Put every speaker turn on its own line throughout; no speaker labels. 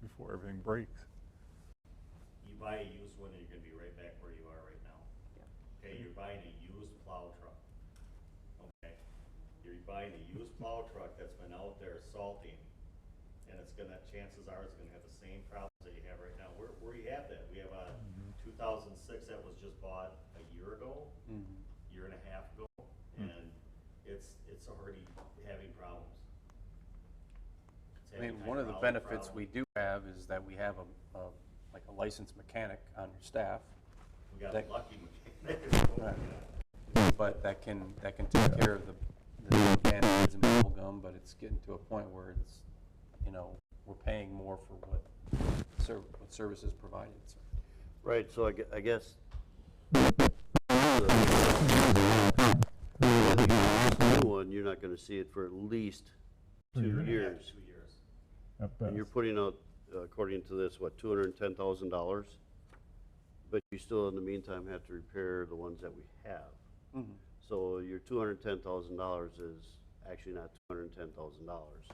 before everything breaks.
You buy a used one and you're gonna be right back where you are right now. Okay, you're buying a used plow truck. Okay, you're buying a used plow truck that's been out there salting, and it's gonna, chances are, it's gonna have the same problems that you have right now. Where, where you have that, we have a
Mm-hmm.
two thousand six that was just bought a year ago,
Mm-hmm.
year and a half ago,
Hmm.
and it's, it's already having problems. It's
I mean,
having
one of the
hydraulic
benefits we
problems.
do have is that we have a, a- like a licensed mechanic on your staff,
We got
that-
lucky.
Right. but that can, that can take care of the, the bandages and bubble gum, but it's getting to a point where it's, you know, we're paying more for what ser, what services provided, so.
Right, so I gue- I guess. New One, you're not gonna see it for at least two years.
Two years.
And you're putting out, according to this, what, two hundred and ten thousand dollars? But you still, in the meantime, have to repair the ones that we have. So your two hundred and ten thousand dollars is actually not two hundred and ten thousand dollars.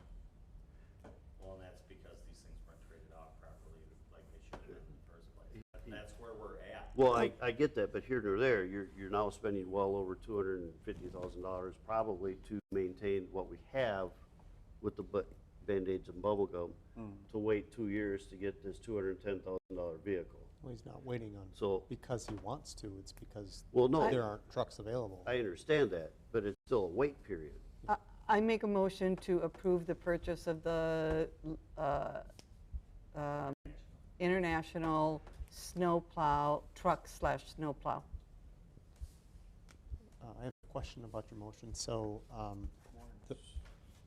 Well, and that's because these things weren't traded off properly like they should have been in the first place. But That's where we're at.
Well, I,
Oh.
I get that, but here nor there, you're, you're now spending well over two hundred and fifty thousand dollars probably to maintain what we have with the bu- Band-Aids and bubble gum,
Hmm.
to wait two years to get this two hundred and ten thousand dollar vehicle.
Well, he's not waiting on,
So-
because he wants to, it's because
Well, no.
there aren't trucks available.
I understand that, but it's still a wait period.
I- I make a motion to approve the purchase of the uh, um, International Snowplow, truck slash snowplow.
Uh, I have a question about your motion, so, um, the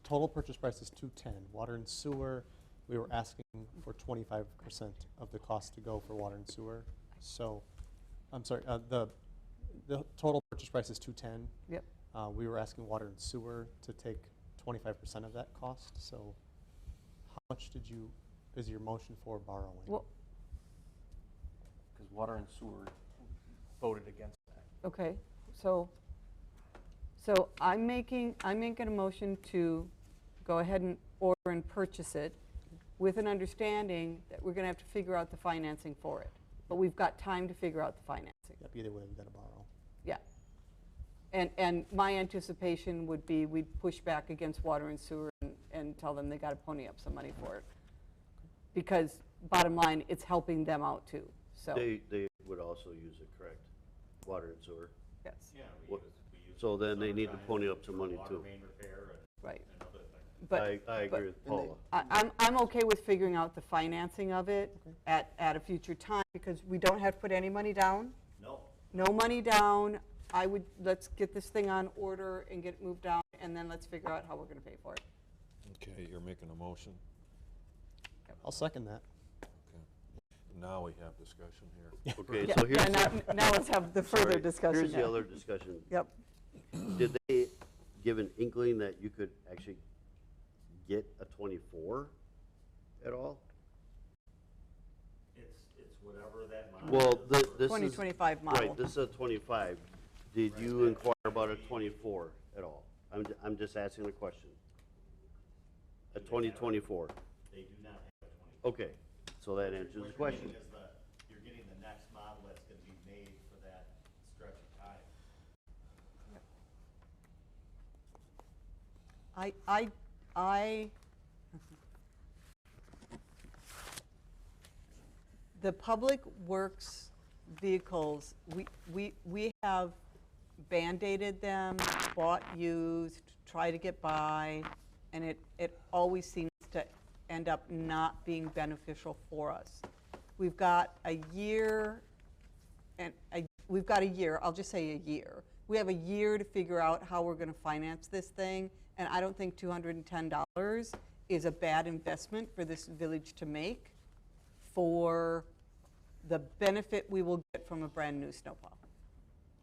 total purchase price is two-ten, water and sewer, we were asking for twenty-five percent of the cost to go for water and sewer, so, I'm sorry, uh, the, the total purchase price is two-ten.
Yep.
Uh, we were asking water and sewer to take twenty-five percent of that cost, so how much did you, is your motion for borrowing?
Well,
Because water and sewer voted against that.
okay, so, so I'm making, I'm making a motion to go ahead and order and purchase it with an understanding that we're going to have to figure out the financing for it. But we've got time to figure out the financing.
Yep, either way, we gotta borrow.
Yeah. And, and my anticipation would be we'd push back against water and sewer and, and tell them they got to pony up some money for it. Because bottom line, it's helping them out too, so,
They, they would also use it, correct? Water and sewer.
yes,
Yeah, we
What-
use, we use.
So then they need to
summertime
pony up some
for
money
water
too.
main repair and-
right.
and other things.
But
I, I
but-
agree with Paula.
I- I'm, I'm okay with figuring out the financing of it at, at a future time, because we don't have to put any money down,
No,
no money down. I would, let's get this thing on order and get it moved down, and then let's figure out how we're going to pay for it.
Okay, you're making a motion.
I'll second that.
Okay. Now we have discussion here.
Okay,
Yeah,
so
yeah,
here's,
now, now let's have the
sorry,
further discussion.
Here's the
yeah.
other discussion.
Yep.
Did they give an inkling that you could actually get a twenty-four at all?
it's, it's whatever that model
Well,
is.
thi- this is.
2025 model.
Right, this is a twenty-five. Did you inquire about a twenty-four at all? I'm, ju- I'm just asking a question. A twenty twenty-four.
They do not have a twenty.
Okay, so that answers the
What you're
question.
getting is the, you're getting the next model that's gonna be made for that stretch of time.
I, I, I, the public works vehicles, we, we, we have Band-Aided them, bought used, tried to get by, and it, it always seems to end up not being beneficial for us. We've got a year and I, we've got a year, I'll just say a year. We have a year to figure out how we're gonna finance this thing, and I don't think two hundred and ten dollars is a bad investment for this village to make for the benefit we will get from a brand-new snowplow.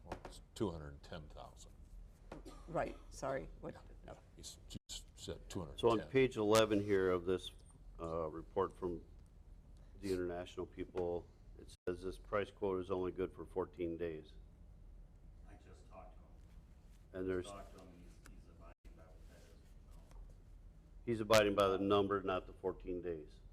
Well, It's two hundred and ten thousand.
Right, sorry, what, no.
He's just said two hundred and
So
ten.
on page 11 here of this uh, report from the international people, it says this price quote is only good for 14 days.
I just talked to him,
And there's,
talked to him, he's, he's abiding by what that is.
he's abiding by the number, not the 14 days.